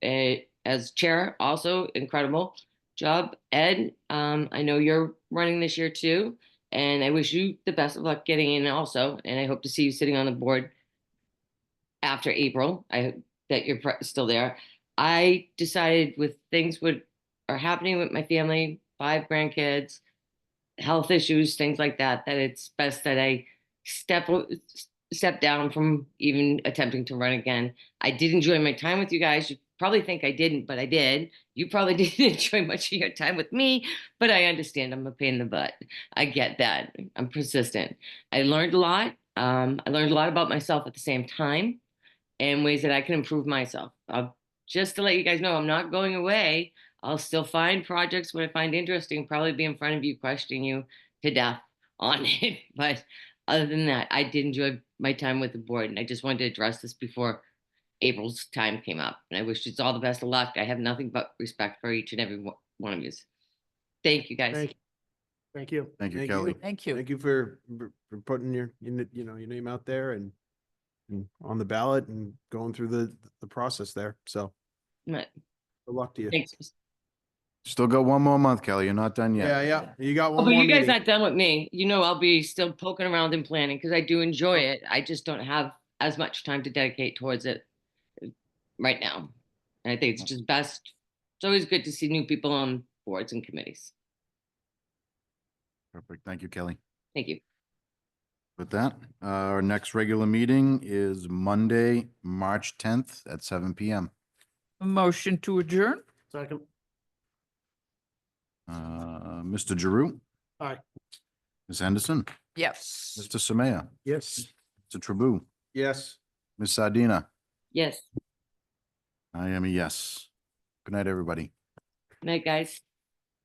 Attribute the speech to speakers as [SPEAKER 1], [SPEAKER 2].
[SPEAKER 1] eh, as chair, also incredible job. Ed, um, I know you're running this year too, and I wish you the best of luck getting in also, and I hope to see you sitting on the board after April. I hope that you're pre- still there. I decided with things would are happening with my family, five grandkids, health issues, things like that, that it's best that I step o- step down from even attempting to run again. I did enjoy my time with you guys. You probably think I didn't, but I did. You probably didn't enjoy much of your time with me, but I understand I'm a pain in the butt. I get that. I'm persistent. I learned a lot. Um, I learned a lot about myself at the same time and ways that I can improve myself. I'll, just to let you guys know, I'm not going away. I'll still find projects what I find interesting, probably be in front of you, questioning you to death on it. But other than that, I did enjoy my time with the board, and I just wanted to address this before April's time came up. And I wish you all the best of luck. I have nothing but respect for each and every one- one of you. Thank you, guys.
[SPEAKER 2] Thank you. Thank you.
[SPEAKER 3] Thank you, Kelly.
[SPEAKER 4] Thank you.
[SPEAKER 2] Thank you for, for for putting your, you kn- you know, your name out there and and on the ballot and going through the, the process there. So
[SPEAKER 1] Right.
[SPEAKER 2] good luck to you.
[SPEAKER 1] Thanks.
[SPEAKER 3] Still got one more month, Kelly. You're not done yet.
[SPEAKER 2] Yeah, yeah. You got
[SPEAKER 1] Oh,
[SPEAKER 2] one
[SPEAKER 1] but
[SPEAKER 2] more
[SPEAKER 1] you guys
[SPEAKER 2] meeting.
[SPEAKER 1] not done with me. You know, I'll be still poking around and planning because I do enjoy
[SPEAKER 2] Oh.
[SPEAKER 1] it. I just don't have as much time to dedicate towards it uh, right now. And I think it's just best. It's always good to see new people on boards and committees.
[SPEAKER 3] Perfect. Thank you, Kelly.
[SPEAKER 1] Thank you.
[SPEAKER 3] With that, uh, our next regular meeting is Monday, March tenth at seven PM.
[SPEAKER 4] A Motion to adjourn?
[SPEAKER 2] Second.
[SPEAKER 3] Uh, Mr. Giroux.
[SPEAKER 2] Aye.
[SPEAKER 3] Ms. Henderson,
[SPEAKER 4] Yes.
[SPEAKER 3] Mr. Samaya,
[SPEAKER 2] Yes.
[SPEAKER 3] Mr. Tribou,
[SPEAKER 2] Yes.
[SPEAKER 3] Ms. Sardina.
[SPEAKER 1] Yes.
[SPEAKER 3] I am a yes. Good night, everybody.
[SPEAKER 1] Night, guys.